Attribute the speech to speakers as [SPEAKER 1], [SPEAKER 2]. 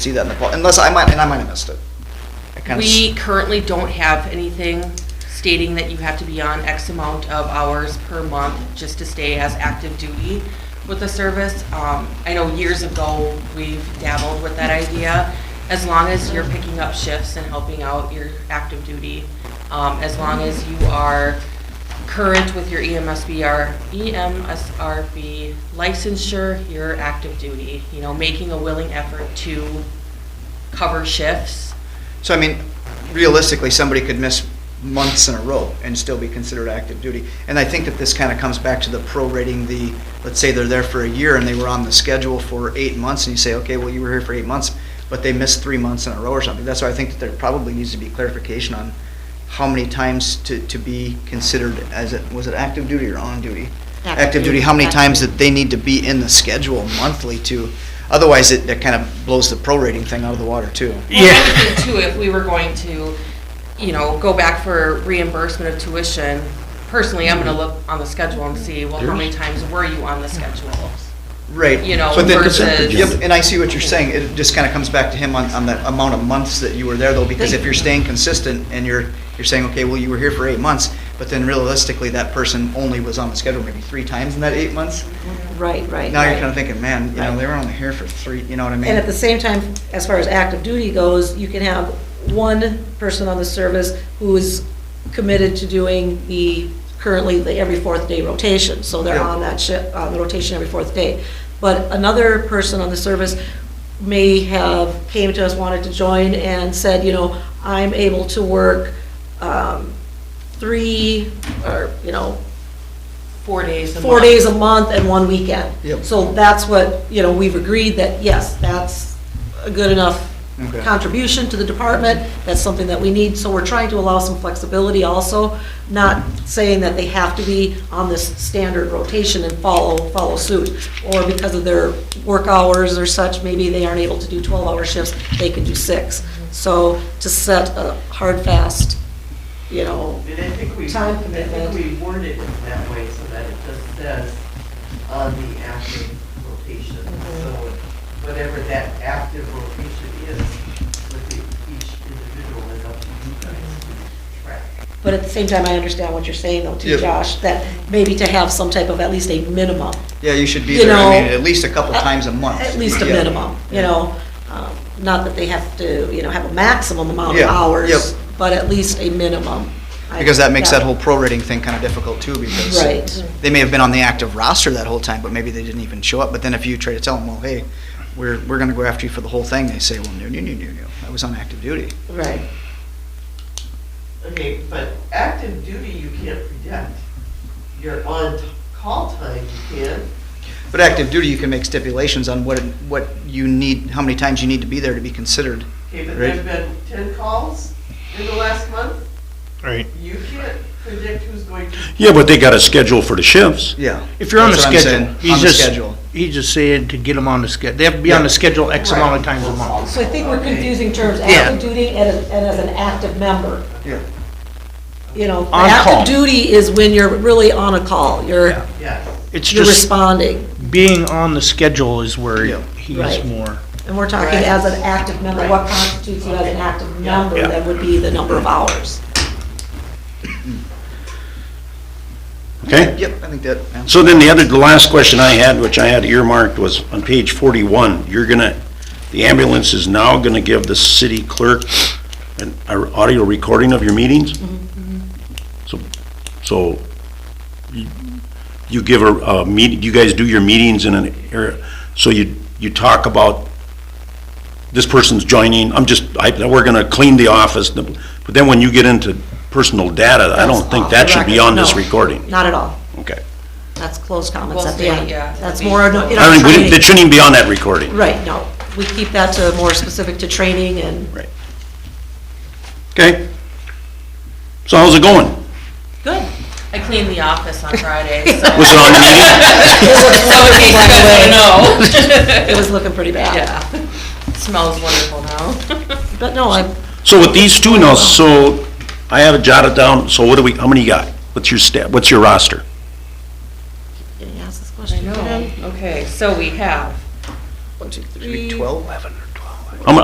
[SPEAKER 1] see that in the, pol- unless I might, and I might have missed it. I kinda s-
[SPEAKER 2] We currently don't have anything stating that you have to be on X amount of hours per month just to stay as active duty with the service. Um, I know years ago, we've dabbled with that idea. As long as you're picking up shifts and helping out your active duty, um, as long as you are current with your E EMSBR, EMSRB licensure, you're active duty, you know, making a willing effort to cover shifts.
[SPEAKER 1] So I mean, realistically, somebody could miss months in a row and still be considered active duty. And I think that this kind of comes back to the prorating the, let's say they're there for a year and they were on the schedule for eight months and you say, okay, well, you were here for eight months, but they missed three months in a row or something. That's why I think that there probably needs to be clarification on how many times to, to be considered as it, was it active duty or on duty?
[SPEAKER 3] Active
[SPEAKER 1] Active duty,
[SPEAKER 3] duty.
[SPEAKER 1] how many
[SPEAKER 3] Active
[SPEAKER 1] times
[SPEAKER 3] duty.
[SPEAKER 1] that they need to be in the schedule monthly to, otherwise it, that kind of blows the prorating thing out of the water too.
[SPEAKER 2] Well, the other thing, Too, if we were going to, you know, go back for reimbursement of tuition, personally, I'm gonna look on the schedule and see, well, how many times were you on the schedule?
[SPEAKER 1] Right.
[SPEAKER 2] you know,
[SPEAKER 1] But then-
[SPEAKER 2] versus-
[SPEAKER 1] Yep, and I see what you're saying, it just kind of comes back to him on, on the amount of months that you were there though, because if you're staying consistent and you're, you're saying, okay, well, you were here for eight months, but then realistically, that person only was on the schedule maybe three times in that eight months,
[SPEAKER 3] Right, right.
[SPEAKER 1] now you're
[SPEAKER 3] right.
[SPEAKER 1] kind of thinking, man, you know, they were only here for three, you know what I mean?
[SPEAKER 4] And at the same time, as far as active duty goes, you can have one person on the service who is committed to doing the, currently, the every fourth day rotation. So they're
[SPEAKER 1] Yeah.
[SPEAKER 4] on that shift, on the rotation every fourth day. But another person on the service may have came to us, wanted to join and said, you know, I'm able to work um, three, or, you know,
[SPEAKER 2] Four days a month.
[SPEAKER 4] four days a month and one weekend.
[SPEAKER 1] Yep.
[SPEAKER 4] So that's what, you know, we've agreed that, yes, that's a good enough
[SPEAKER 1] Okay.
[SPEAKER 4] contribution to the department, that's something that we need, so we're trying to allow some flexibility also, not saying that they have to be on this standard rotation and follow, follow suit, or because of their work hours or such, maybe they aren't able to do 12-hour shifts, they can do six. So to set a hard, fast, you know,
[SPEAKER 5] And I think we,
[SPEAKER 4] Time
[SPEAKER 5] I
[SPEAKER 4] commitment.
[SPEAKER 5] think we worded it that way so that it just says on the active rotation. So
[SPEAKER 4] Mm-hmm.
[SPEAKER 5] whatever that active rotation is, with the- each individual is up to you guys to track.
[SPEAKER 4] But at the same time, I understand what you're saying though,
[SPEAKER 1] Yeah.
[SPEAKER 4] too, Josh, that maybe to have some type of at least a minimum.
[SPEAKER 1] Yeah, you should be
[SPEAKER 4] you
[SPEAKER 1] there, I mean,
[SPEAKER 4] know,
[SPEAKER 1] at least a couple times a month.
[SPEAKER 4] At least a
[SPEAKER 1] Yeah.
[SPEAKER 4] minimum, you know? Um, Not that they have to, you know, have a maximum amount of
[SPEAKER 1] Yeah, yep.
[SPEAKER 4] hours, but at least a minimum. I-
[SPEAKER 1] Because that makes that whole prorating thing kind of difficult too, because
[SPEAKER 4] Right.
[SPEAKER 1] they may have been on the active roster that whole time, but maybe they didn't even show up. But then if you try to tell them, well, hey, we're, we're going to go after you for the whole thing, they say, well, no, no, no, no, no, I was on active duty.
[SPEAKER 4] Right.
[SPEAKER 5] Okay, but active duty you can't predict. Your on-call time you can,
[SPEAKER 1] But active duty, you can make stipulations on what, it- what you need, how many times you need to be there to be considered.
[SPEAKER 5] okay, but
[SPEAKER 1] Right.
[SPEAKER 5] there've been ten calls in the last month.
[SPEAKER 6] Right.
[SPEAKER 5] You can't predict who's going to.
[SPEAKER 7] Yeah, but they got a schedule for the shifts.
[SPEAKER 1] Yeah.
[SPEAKER 6] If you're on the
[SPEAKER 1] That's what I'm saying,
[SPEAKER 6] schedule,
[SPEAKER 1] on
[SPEAKER 6] he's
[SPEAKER 1] the
[SPEAKER 6] just,
[SPEAKER 1] schedule.
[SPEAKER 6] he's just saying to get them on the schedule. They have to be on the schedule X amount of times a month.
[SPEAKER 4] So I think we're
[SPEAKER 5] Okay.
[SPEAKER 4] confusing terms, active duty and as- and as an active member.
[SPEAKER 1] Yeah.
[SPEAKER 4] You know,
[SPEAKER 6] On call.
[SPEAKER 4] active duty is when you're really on a call, you're,
[SPEAKER 6] Yeah.
[SPEAKER 5] Yes.
[SPEAKER 6] It's
[SPEAKER 4] you're
[SPEAKER 6] just
[SPEAKER 4] responding.
[SPEAKER 6] being on the schedule is
[SPEAKER 1] Yeah.
[SPEAKER 6] where he's
[SPEAKER 4] Right.
[SPEAKER 6] more.
[SPEAKER 4] And we're talking
[SPEAKER 5] Right.
[SPEAKER 4] as an active member, what constitutes you as an active member,
[SPEAKER 6] Yeah.
[SPEAKER 4] that would be the number of hours.
[SPEAKER 7] Okay?
[SPEAKER 1] Yep, I think that answers.
[SPEAKER 7] So then the other, the last question I had, which I had earmarked, was on page 41, you're gonna, the ambulance is now gonna give the city clerk an a audio recording of your meetings?
[SPEAKER 4] Mm-hmm,
[SPEAKER 7] So, so you- you give a, a meeting, you guys do your meetings in an area, so you, you talk about this person's joining, I'm just, I, we're gonna clean the office, but then when you get into personal data, I don't
[SPEAKER 4] That's
[SPEAKER 7] think
[SPEAKER 4] off the
[SPEAKER 7] that should be
[SPEAKER 4] record.
[SPEAKER 7] on this
[SPEAKER 4] No,
[SPEAKER 7] recording.
[SPEAKER 4] Not at all.
[SPEAKER 7] Okay.
[SPEAKER 4] That's closed comments
[SPEAKER 2] We'll
[SPEAKER 4] at the
[SPEAKER 2] say,
[SPEAKER 4] end.
[SPEAKER 2] yeah,
[SPEAKER 4] That's
[SPEAKER 2] it'll
[SPEAKER 4] more,
[SPEAKER 2] be-
[SPEAKER 4] no- in
[SPEAKER 7] I
[SPEAKER 4] our
[SPEAKER 7] don't, we didn't, it
[SPEAKER 4] training.
[SPEAKER 7] shouldn't even be on that recording.
[SPEAKER 4] Right, no. We keep that to more specific to training and,
[SPEAKER 7] Right. Okay. So how's it going?
[SPEAKER 4] good.
[SPEAKER 2] I cleaned the office on Friday, so.
[SPEAKER 7] Was it on the meeting?
[SPEAKER 2] So it tastes good, I know.
[SPEAKER 4] It was looking pretty bad.
[SPEAKER 2] Yeah. Smells wonderful now.
[SPEAKER 4] But no, I'm,
[SPEAKER 7] So with these two now, so I have it jotted down, so what do we, how many you got? What's your stat, what's your roster?
[SPEAKER 4] can you ask this question again?
[SPEAKER 2] Okay, so we have
[SPEAKER 4] One, two, three.
[SPEAKER 1] Maybe 12?